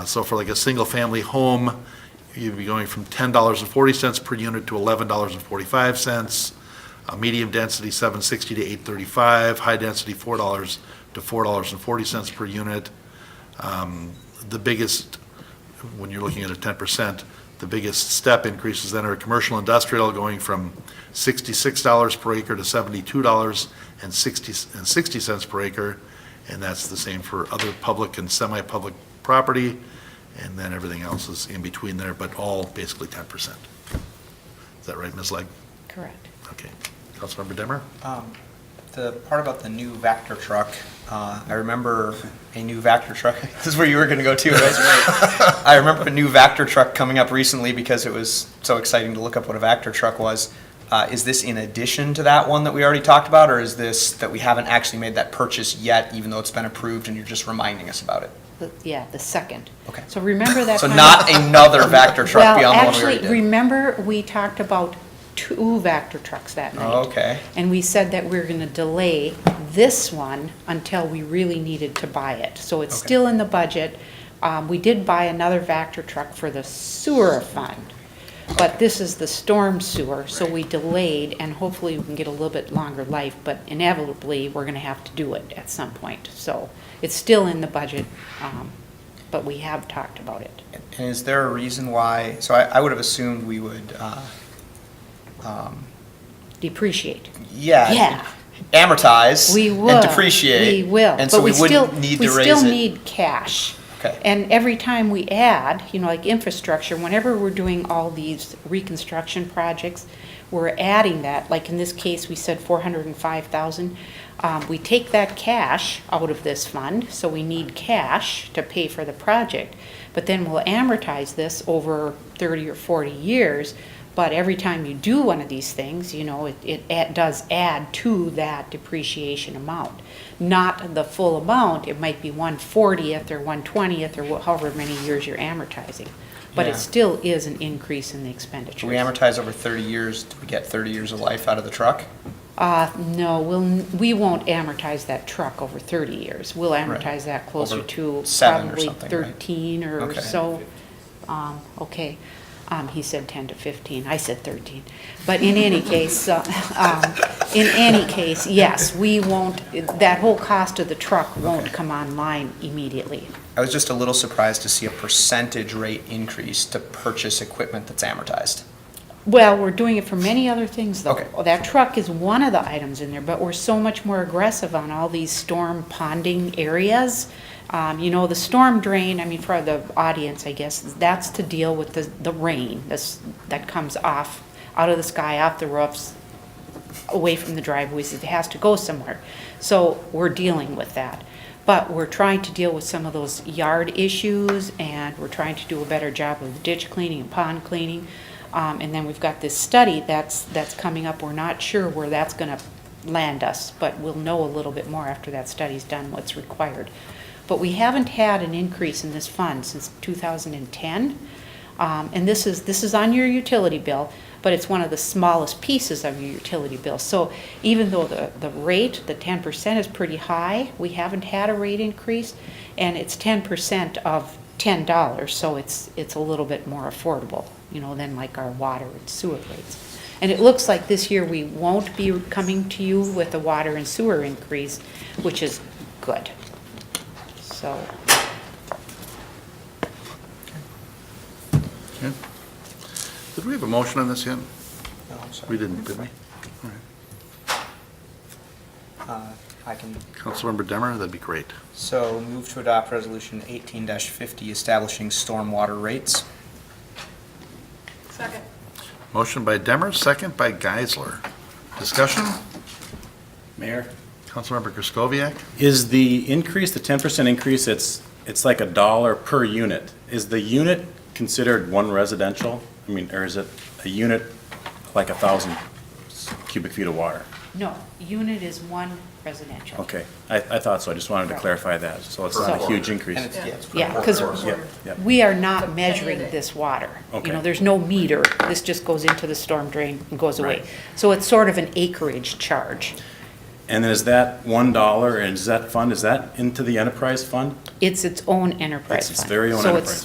So for like a single-family home, you'd be going from $10.40 per unit to $11.45. A Uh, medium density, 760 to 835, high density, $4 to $4.40 per unit. Um, The biggest, when you're looking at a 10%, the biggest step increases then are commercial industrial going from $66 per acre to $72.60 per acre. And that's the same for other public and semi-public property, and then everything else is in between there, but all basically 10%. Is that right, Ms. Legg? Correct. Okay. Councilmember Demmer? Um, The part about the new Vector truck, uh, I remember a new Vector truck, this is where you were going to go too, right? I remember a new Vector truck coming up recently because it was so exciting to look up what a Vector truck was. Uh, Is this in addition to that one that we already talked about, or is this that we haven't actually made that purchase yet, even though it's been approved and you're just reminding us about it? The- Yeah, the second. Okay. So remember that. So time- not another Vector truck Well, beyond the one we actually, already did? remember, we talked about two Vector trucks that night. Oh, Okay. And we said that we we're gonna delay this one until we really needed to buy it. So it's Okay. still in the budget. Um, we did buy another Vector truck for the sewer fund. But this is the storm sewer, so we delayed and hopefully we can get a little bit longer life, but inevitably, we're gonna have to do it at some point. So it's still in the budget, um, but we have talked about it. And is there a reason why, so I I would have assumed we would, uh, um, Depreciate. yeah. Yeah. amortize. We will. And depreciate. We will. And so But we still- wouldn't need to raise it. We still need cash. Okay. And every time we add, you know, like infrastructure, whenever we're doing all these reconstruction projects, we're adding that, like in this case, we said four hundred and five thousand. Um, we take that cash out of this fund, so we need cash to pay for the project. But then we'll amortize this over thirty or forty years. But every time you do one of these things, you know, it, it add- does add to that depreciation amount. Not the full amount, it might be one fortieth or one twentieth or wha- however many years you're amortizing. But Yeah. it still is an increase in the Do we expenditures. amortize over 30 years? Do we get 30 years of life out of the truck? Uh, no, we'll, n- we won't amortize that truck over thirty years. We'll amortize that closer Over to seven or probably something, right? thirteen or Okay. so. Um, okay, um, he said ten to fifteen, I said thirteen. But in any case, uh, um, in any case, yes, we won't, that whole cost of the truck won't Okay. come online immediately. I was just a little surprised to see a percentage rate increase to purchase equipment that's amortized. Well, we're doing it for many other things, though. Okay. Oh, That truck is one of the items in there, but we're so much more aggressive on all these storm ponding areas. Um, you know, the storm drain, I mean, for the audience, I guess, that's to deal with the, the rain that's, that comes off, out of the sky, off the roofs, away from the driveways, it has to go somewhere. So we're dealing with that. But we're trying to deal with some of those yard issues, and we're trying to do a better job of ditch cleaning and pond cleaning. Um, and then we've got this study that's, that's coming up, we're not sure where that's gonna land us, but we'll know a little bit more after that study's done, what's required. But we haven't had an increase in this fund since two thousand and ten. Um, And this is, this is on your utility bill, but it's one of the smallest pieces of your utility bill. So even though the, the rate, the ten percent is pretty high, we haven't had a rate increase, and it's ten percent of ten dollars, so it's, it's a little bit more affordable, you know, than like our water and sewer rates. And it looks like this year we won't be coming to you with a water and sewer increase, which is good. So, Okay. Did we have a motion on this yet? No, I'm sorry. We didn't, did we? Uh, I can, Councilmember Demmer, that'd be great. so move to adopt Resolution 18-50, establishing stormwater rates. Second. Motion by Demmer, second by Geisler. Discussion? Mayor, Councilmember Kraskoviac? is the increase, the ten percent increase, it's, it's like a dollar per unit. Is the unit considered one residential? I mean, or is it a unit like a thousand cubic feet of water? no, unit is one residential. Okay, I, I thought so, I just wanted to clarify that, so it's not a huge increase. And it's, yeah, it's- Yeah, because Yeah, yeah. we are not It's a penny a measuring day. this water. You Okay. know, there's no meter, this just goes into the storm drain and goes away. Right. So it's sort of an acreage charge. And then is that one dollar, and is that fund, is that into the enterprise fund? It's its own enterprise It's its fund. very own So enterprise